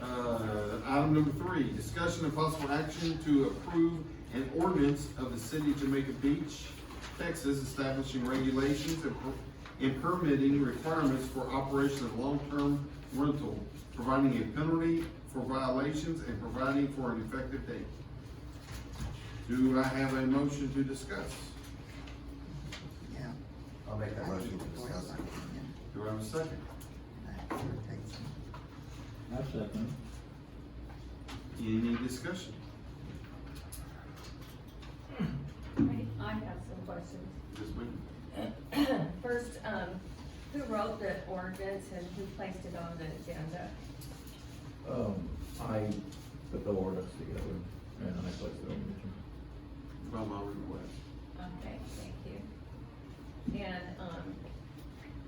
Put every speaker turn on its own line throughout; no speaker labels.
Uh, Item number three, discussion and possible action to approve an ordinance of the city of Jamaica Beach, Texas, establishing regulations and per- and permitting requirements for operation of long-term rental, providing a penalty for violations and providing for an effective date. Do I have a motion to discuss?
Yeah.
I'll make that motion to
Or
discuss
something,
it.
Do I have a second?
yeah. That irritates me.
I second.
Any discussion?
I have some questions.
Yes, ma'am.
First, um, who wrote the ordinance and who placed it on the agenda?
Um, I put the ordinance together and I placed it on
By my request.
Okay, thank you. And, um,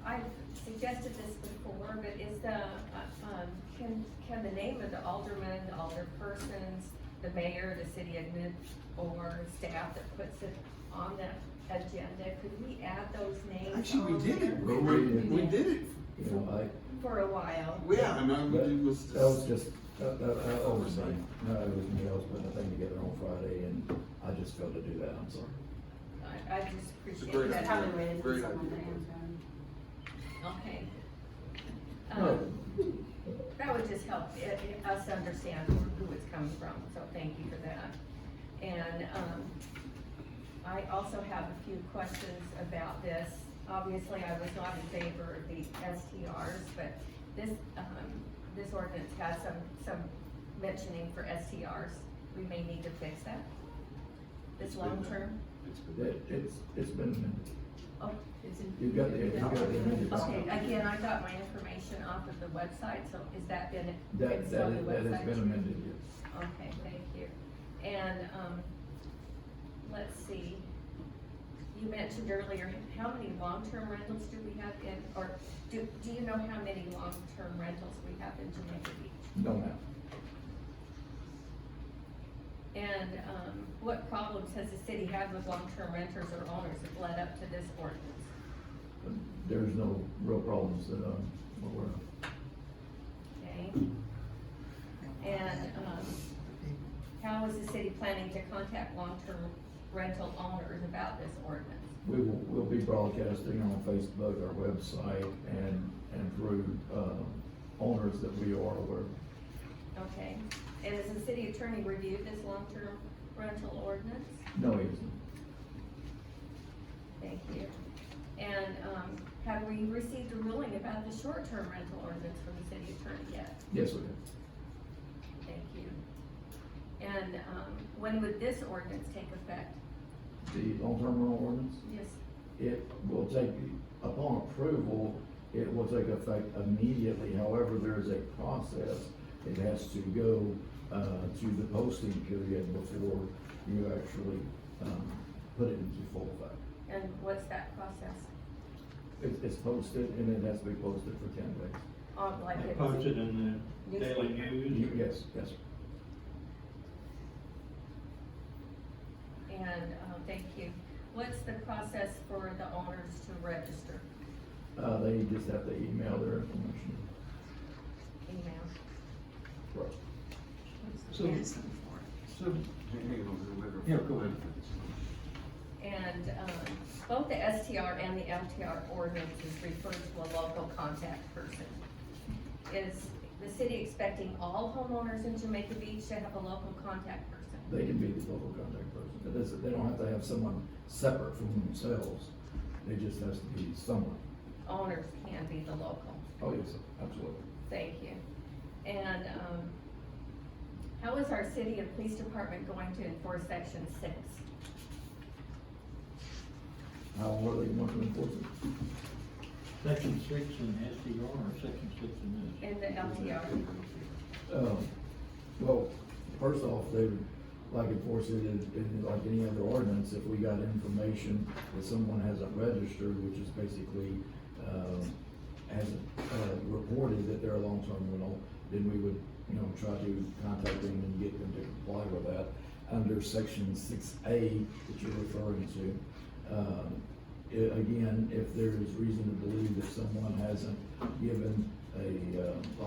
I've suggested this before, but is the, uh, um, can, can the name of the alderman, the alderpersons, the mayor, the city admin, or staff that puts it on the agenda, could we add those names?
Actually, we
on
did it,
there?
bro. we, we did it.
You know, I,
For a while.
Yeah, and I would,
That
it was
that was
just,
just, that, that, that oversight. No, it was me, I was putting the thing together on Friday and I just failed to do that, I'm sorry.
I, I just
It's a great
appreciate
idea.
that.
Probably waited for
Very good.
someone to answer.
Okay.
No.
Um, That would just help i- i- us understand who it's coming from, so thank you for that. And um, I also have a few questions about this. Obviously, I was not in favor of the STRs, but this, um, this ordinance has some, some mentioning for STRs. We may need to fix that. This
It's been done.
long-term,
it's been
It, it's, it's been, amended.
oh, it's in.
you've got the, you've got the amended.
Okay, again, I got my information off of the website, so is that been
That,
fixed
that,
on the
is- that has
website?
been amended, yes.
Okay, thank you. And, um, let's see, you mentioned earlier, how many long-term rentals do we have in, or do, do you know how many long-term rentals we have in Jamaica Beach?
No, ma'am.
And, um, what problems has the city had with long-term renters or owners that led up to this ordinance?
There's no real problems that, um, we're aware of.
Okay,
And uh, why
and,
that
um,
people-
How is the city planning to contact long-term rental owners about this ordinance?
We will, we'll be broadcasting on Facebook, our website, and, and through, um, owners that we are aware of.
Okay, and has the city attorney reviewed this long-term rental ordinance?
No, he isn't.
Thank you. And, um, have we received a ruling about the short-term rental ordinance from the city attorney yet?
Yes, we have.
Thank you. And, um, when would this ordinance take effect?
The long-term rental ordinance,
Yes,
it will take, upon approval, it will take effect immediately. However, there is a process. It has to go, uh, to the posting period before you actually, um, put it into full effect.
and what's that process?
It's, it's posted and it has to be posted for ten days.
Um, like
They
it's.
Posted in the Daily
Newspaper.
News. or-
Yes, yes.
And, uh, thank you. What's the process for the owners to register?
Uh, they just have to email their information.
Email?
Right.
what's the
So-
reason for it?
So,
Hang on,
Yeah, go ahead.
And, um, both the STR and the LTR ordinances refer to a local contact person. Is the city expecting all homeowners in Jamaica Beach to have a local contact person?
They can be the local contact person. It doesn't, they don't have to have someone separate from themselves. They just has to be someone.
Owners can be the local,
Oh, yes, absolutely.
thank you. And, um, how is our city and police department going to enforce section six?
How are they going to enforce it?
section six in SDR or section six in this?
In the LTR,
Um, well, first off, they would like enforce it in, in like any other ordinance. If we got information that someone hasn't registered, which is basically, um, hasn't, uh, reported that they're a long-term rental, then we would, you know, try to contact them and get them to comply with that. Under section six A that you're referring to, um, i- again, if there is reason to believe that someone hasn't given a, uh,